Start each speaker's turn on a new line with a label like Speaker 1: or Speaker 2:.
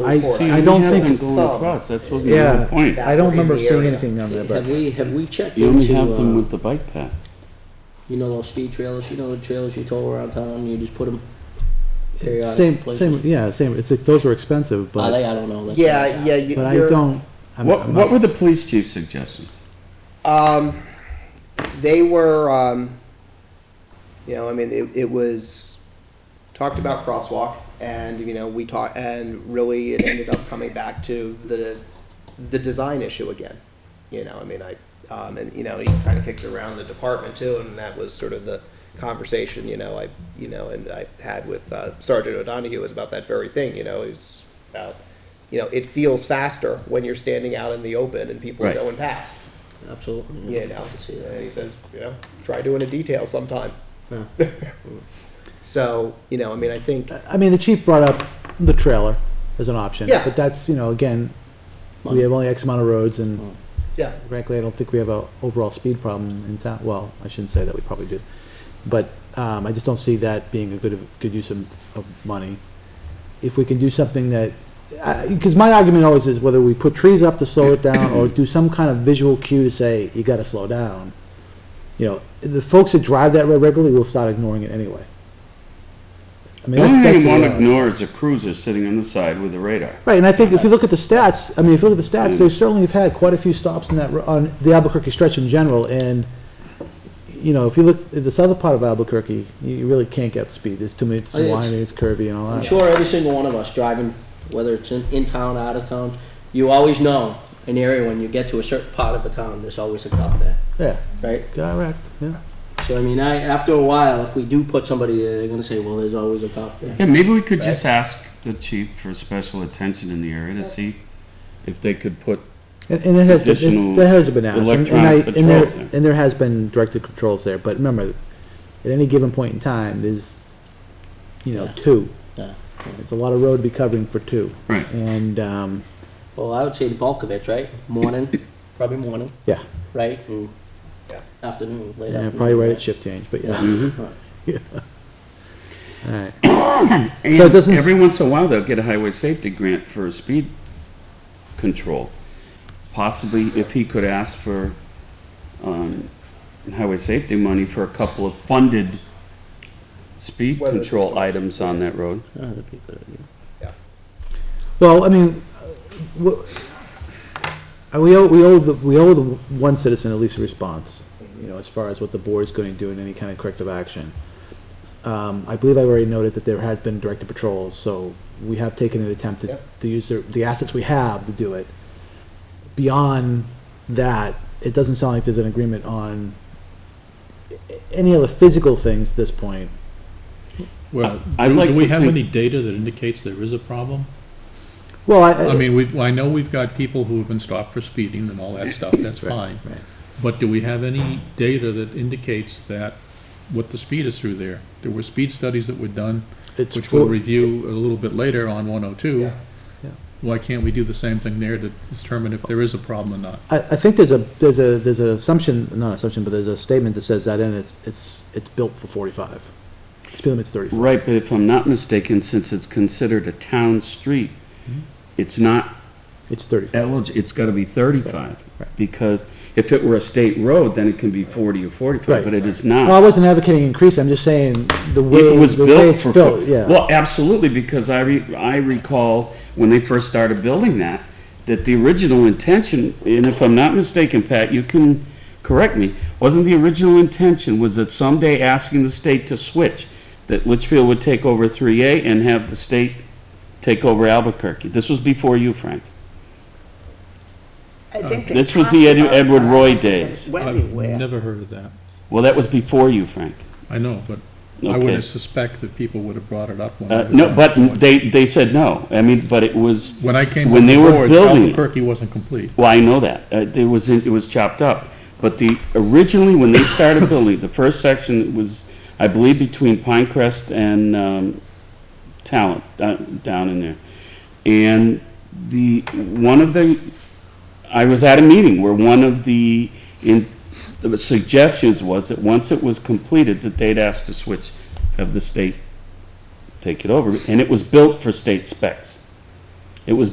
Speaker 1: I-
Speaker 2: report.
Speaker 1: I don't
Speaker 3: Have
Speaker 1: think-
Speaker 3: them
Speaker 2: Some.
Speaker 3: going across, that's wasn't
Speaker 1: Yeah,
Speaker 3: the point.
Speaker 2: That
Speaker 1: I don't
Speaker 2: were in
Speaker 1: remember
Speaker 2: the
Speaker 1: seeing
Speaker 2: area.
Speaker 1: anything on that, but
Speaker 4: Have we, have we checked
Speaker 3: You only
Speaker 4: into,
Speaker 3: have them
Speaker 4: uh,
Speaker 3: with the bike path.
Speaker 4: you know those speed trailers, you know the trailers you tow around town, you just put them periodic
Speaker 1: same,
Speaker 4: places?
Speaker 1: same, yeah, same, it's, like those were expensive,
Speaker 4: Are they,
Speaker 1: but,
Speaker 4: I don't know. that's-
Speaker 2: Yeah, yeah, you-
Speaker 1: but I
Speaker 2: you're-
Speaker 1: don't. I'm-
Speaker 3: What,
Speaker 1: I'm
Speaker 3: what
Speaker 1: not-
Speaker 3: were the police chief's suggestions?
Speaker 2: Um, they were, um, you know, I mean, it, it was talked about crosswalk, and you know, we talked, and really, it ended up coming back to the the design issue again. You know, I mean, I um, and you know, he kind of kicked around the department too, and that was sort of the conversation. You know, I you know, and I had with uh, Sergeant O'Donohue was about that very thing. You know, it was about you know, it feels faster when you're standing out in the open and people
Speaker 3: Right.
Speaker 2: are going past.
Speaker 4: Absolutely.
Speaker 2: Yeah, now,
Speaker 4: I can see that.
Speaker 2: and he says, you know, try doing a detail sometime.
Speaker 4: Yeah.
Speaker 2: So, you know, I mean, I think,
Speaker 1: I mean, the chief brought up the trailer as an option,
Speaker 2: Yeah.
Speaker 1: but that's, you know, again, we have only X amount of roads and
Speaker 2: yeah,
Speaker 1: frankly, I don't think we have a overall speed problem in town. Well, I shouldn't say that, we probably do. But, um, I just don't see that being a good, good use of, of money. If we can do something that, because my argument always is whether we put trees up to slow it down or do some kind of visual cue to say, you gotta slow down. You know, the folks that drive that road regularly will start ignoring it anyway. I mean,
Speaker 3: The only
Speaker 1: that's- uh,
Speaker 3: thing
Speaker 1: that's
Speaker 3: you want to
Speaker 1: reality.
Speaker 3: ignore is a cruiser sitting on the side with a radar.
Speaker 1: Right, and I think if you look at the stats, I mean, if you look at the stats,
Speaker 3: Mm.
Speaker 1: they certainly have had quite a few stops in that, ro- on the Albuquerque stretch in general, and, you know, if you look at the southern part of Albuquerque, you- you really can't get up to speed, there's too many, it's
Speaker 4: Oh, yeah, it's-
Speaker 1: winding, it's curvy and all
Speaker 4: I'm
Speaker 1: that.
Speaker 4: sure every single one of us driving, whether it's in, in town, out of town, you always know an area when you get to a certain part of a town, there's always a cop there,
Speaker 1: Yeah,
Speaker 4: right?
Speaker 1: correct, yeah.
Speaker 4: So I mean, I, after a while, if we do put somebody there, they're gonna say, well, there's always a cop there.
Speaker 3: Yeah, maybe we could just ask the chief for special attention in the area to see if they could put,
Speaker 1: And, and it has, been-
Speaker 3: Additional
Speaker 1: it- that has been asked, and- and I,
Speaker 3: electronic
Speaker 1: and there,
Speaker 3: patrols there.
Speaker 1: and there has been directed controls there, but remember, at any given point in time, there's, you know,
Speaker 4: Yeah.
Speaker 1: two.
Speaker 4: Yeah.
Speaker 1: It's a lot of road to be covering for two,
Speaker 3: right,
Speaker 1: and, um,
Speaker 4: Well, I would say the bulk of it, right? Morning, probably morning,
Speaker 1: yeah,
Speaker 4: right? And
Speaker 2: Yeah.
Speaker 4: afternoon, late
Speaker 1: Hmm. yeah,
Speaker 4: afternoon. Mm-hmm.
Speaker 1: probably right at shift change, but yeah.
Speaker 4: Right.
Speaker 1: All right.
Speaker 3: And
Speaker 1: So it doesn't s-
Speaker 3: every once in a while, they'll get a highway safety grant for speed control. Possibly if he could ask for, um, highway safety money for a couple of funded speed
Speaker 2: Whether there's
Speaker 3: control
Speaker 2: something-
Speaker 3: items on that road.
Speaker 4: Oh, that'd be a good idea.
Speaker 1: Well, I mean, uh, wh- uh, we owe, we owe, the- we owe the one citizen at least a response, you know, as far as what the board's going to do in any kind of corrective action. Um, I believe I've already noted that there had been directed patrols, so we have taken an attempt to,
Speaker 2: Yep.
Speaker 1: to use the, the assets we have to do it. Beyond that, it doesn't sound like there's an agreement on a- any other physical things at this point.
Speaker 5: Well,
Speaker 3: I- I'd
Speaker 5: do
Speaker 3: like
Speaker 5: do we
Speaker 3: to
Speaker 5: have
Speaker 3: think-
Speaker 5: any data that indicates there is a problem?
Speaker 1: Well,
Speaker 5: I
Speaker 1: I,
Speaker 5: mean, we, I know we've got people who have been stopped for speeding and all that stuff, that's fine.
Speaker 1: right.
Speaker 5: But do we have any data that indicates that, what the speed is through there? There were speed studies that were done,
Speaker 1: it's.
Speaker 5: which we'll
Speaker 1: for-
Speaker 5: review a little bit later on one oh two.
Speaker 2: Yeah.
Speaker 1: Yeah.
Speaker 5: Why can't we do the same thing there to determine if there is a problem or not?
Speaker 1: I, I think there's a, there's a, there's an assumption, not an assumption, but there's a statement that says that and it's, it's, it's built for forty-five. Speed limit's thirty-five.
Speaker 3: Right, but if I'm not mistaken, since it's considered a town street,
Speaker 1: Mm-hmm.
Speaker 3: it's not
Speaker 1: It's thirty-five.
Speaker 3: eligible, it's gotta be thirty-five.
Speaker 1: right.
Speaker 3: Because if it were a state road, then it can be forty or
Speaker 1: Right.
Speaker 3: forty-five, but it is
Speaker 1: Well, I
Speaker 3: not.
Speaker 1: wasn't advocating increase, I'm just saying the way,
Speaker 3: It was
Speaker 1: the way
Speaker 3: built
Speaker 1: it's
Speaker 3: for.
Speaker 1: built, yeah.
Speaker 3: Well, absolutely, because I re, I recall when they first started building that, that the original intention, and if I'm not mistaken, Pat, you can correct me, wasn't the original intention was that someday asking the state to switch, that Litchfield would take over three A and have the state take over Albuquerque. This was before you, Frank.
Speaker 6: I think they
Speaker 3: This was the
Speaker 6: talked
Speaker 3: Edu-
Speaker 6: about
Speaker 3: Edward
Speaker 6: that.
Speaker 3: Roy days.
Speaker 6: Went
Speaker 5: I've
Speaker 6: anywhere.
Speaker 5: never heard of that.
Speaker 3: Well, that was before you, Frank.
Speaker 5: I know, but I
Speaker 3: Okay.
Speaker 5: would suspect that people would have brought it up when. I
Speaker 3: Uh,
Speaker 5: was
Speaker 3: no,
Speaker 5: on
Speaker 3: but
Speaker 5: the board.
Speaker 3: they, they said no. I mean, but it was,
Speaker 5: When I came
Speaker 3: when
Speaker 5: on the
Speaker 3: they were
Speaker 5: board,
Speaker 3: building it-
Speaker 5: Albuquerque wasn't complete.
Speaker 3: well, I know that. Uh, it was, it was chopped up. But the, originally, when they started building, the first section was, I believe, between Pinecrest and, um, Talent, uh, down in there. And the, one of the, I was at a meeting where one of the, in, the suggestions was that once it was completed, that they'd ask to switch, have the state take it over. And it was built for state specs. It was